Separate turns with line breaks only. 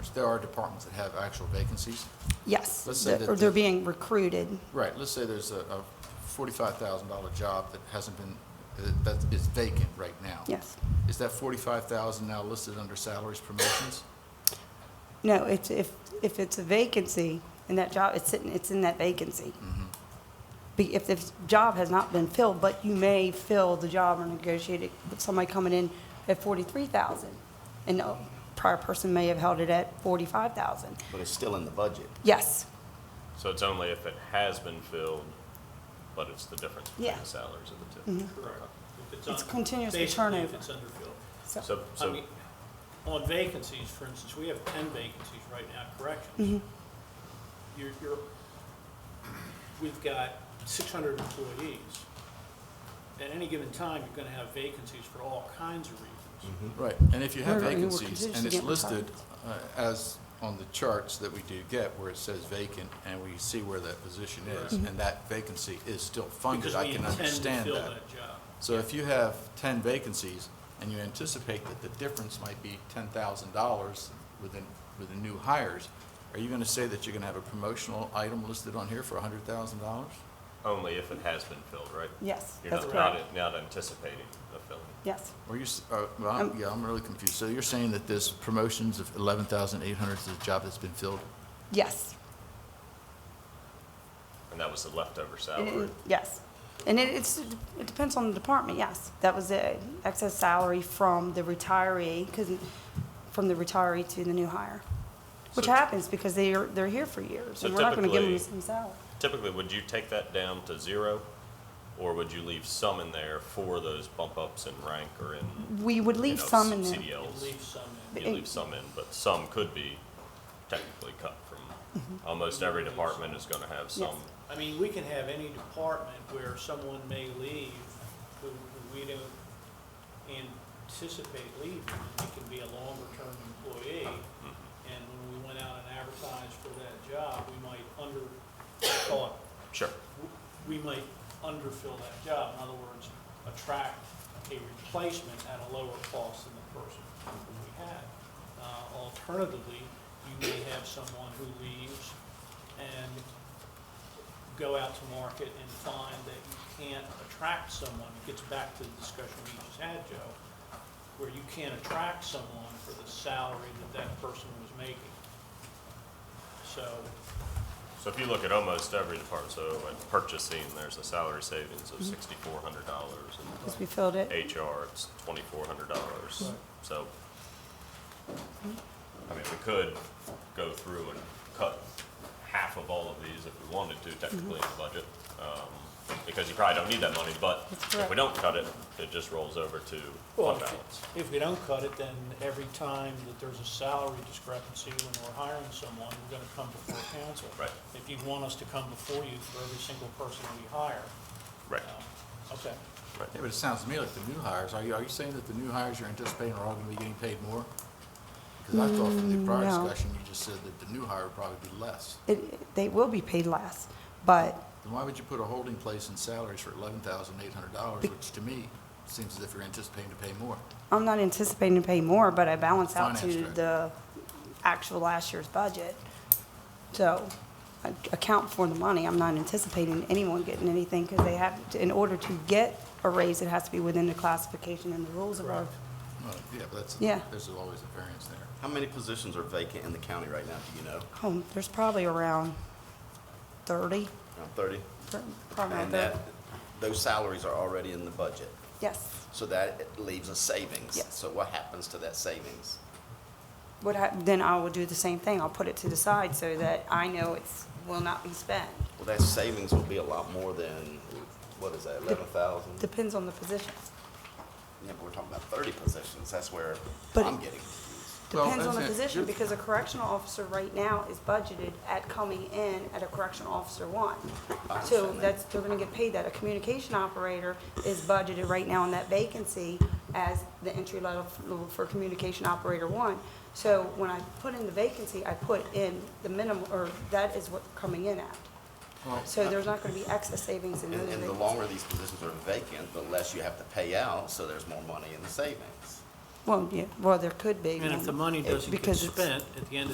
there are departments that have actual vacancies.
Yes,
Let's say
the-
that
or they're
the-
being recruited.
Right, let's say there's a, a forty-five thousand dollar job that hasn't been, that is vacant right now.
Yes.
Is that forty-five thousand now listed under salaries promotions?
No, it's, if, if it's a vacancy and that job, it's sitting, it's in that vacancy.
Mm-hmm.
Be- If the job has not been filled, but you may fill the job or negotiate it with somebody coming in at forty-three thousand. And a prior person may have held it at forty-five thousand.
But it's still in the budget.
Yes,
So it's only if it has been filled, but it's the difference between
Yeah. Mm-hmm.
the salaries of the two.
Correct. If
It's
un-
continuously
basically
turnover.
If it's underfilled.
so,
So,
I
so,
mean, on vacancies, for instance, we have ten vacancies right now,
Mm-hmm.
corrections. You're, you're, we've got six hundred employees. At any given time, you're gonna have vacancies for all kinds of reasons.
Right, and if you have
We're- we're
vacancies and it's
contingent
listed
requirements.
uh, as on the charts that we do get where it says vacant and we see where that position is and that vacancy is still funded,
Mm-hmm. Because
I
we
can
intend to
understand
fill
that.
job.
So if you have ten vacancies and you anticipate that the difference might be ten thousand dollars within, with the new hires, are you gonna say that you're gonna have a promotional item listed on here for a hundred thousand dollars?
only if it has been filled, right?
yes,
You're
that's
not, not,
correct.
not anticipating a filling.
Yes,
Or you, s- uh, well, I'm- yeah, I'm really confused. So you're saying that this promotions of eleven thousand eight hundred is a job that's been filled?
yes.
And that was the leftover
And
salary.
it- Yes. And it, it's, it depends on the department, yes. That was the excess salary from the retiree, because, from the retiree to the new hire. Which
So-
happens because they are, they're here for years,
So
and we're not gonna give them the same
typically-
salary.
Typically, would you take that down to zero? Or would you leave some in there for those bump ups in rank or in,
We would
you
leave
know,
some in there.
You
CDLs?
leave some in.
You leave some in, but some could be technically cut from,
Mm-hmm.
almost every department is gonna have some.
Yes.
I mean, we can have any department where someone may leave who who we don't anticipate leaving. It can be a longer-term employee, and when we went out and advertised for that job, we might under, thought,
Sure.
we might underfill that job. In other words, attract a replacement at a lower cost than the person we had. Uh, Alternatively, you may have someone who leaves and go out to market and find that you can't attract someone. It gets back to the discussion we just had, Joe, where you can't attract someone for the salary that that person was making. So,
So if you look at almost every department, so at purchasing, there's a salary savings of sixty-four hundred dollars.
Because we filled it.
HR, it's twenty-four hundred dollars, so. I mean, we could go through and cut half of all of these if we wanted to technically in the budget. um, Because you probably don't need that money, but
That's
if
correct.
we don't cut it, it just rolls over to
Well,
fund balance.
if- if we don't cut it, then every time that there's a salary discrepancy when we're hiring someone, we're gonna come before council.
Right.
If you want us to come before you for every single person we hire.
Right,
Um, Okay.
right.
Yeah, but it sounds to me like the new hires, are you, are you saying that the new hires you're anticipating are all gonna be getting paid more? Because I thought from the prior
no.
discussion, you just said that the new hire would probably be less.
It, they will be paid less, but
Then why would you put a holding place in salaries for eleven thousand eight hundred dollars, which to me seems as if you're anticipating to pay more?
I'm not anticipating to pay more, but I balance out to
Finance director.
the actual last year's budget. So I account for the money. I'm not anticipating anyone getting anything because they have, to- in order to get a raise, it has to be within the classification and the rules of our,
Well, yeah, but that's,
Yeah.
there's always a variance there.
How many positions are vacant in the county right now, do you know?
home. There's probably around 30,
Around thirty?
pr- probably around
And
30.
that, those salaries are already in the budget,
Yes.
so that leaves a savings.
Yes.
So what happens to that savings?
What hap, then I will do the same thing. I'll put it to the side so that I know it's, will not be spent.
Well, that savings will be a lot more than, what is that, eleven thousand? Yeah,
Depends on the position.
but we're talking about thirty positions, that's where
But-
I'm getting
Well,
Depends on the
that's it.
position,
You're-
because a correctional officer right now is budgeted at coming in at a correctional officer one.
I
So
understand that.
that's, they're gonna get paid that. A communication operator is budgeted right now in that vacancy as the entry level level for communication operator one. So when I put in the vacancy, I put in the minimum, or that is what they're coming in at.
Well,
So there's not gonna be excess savings in those
And, and the
vacancies.
longer these positions are vacant, the less you have to pay out, so there's more money in the savings.
Well, yeah, well, there could be.
And if the money doesn't get
Because it's-
spent at the end of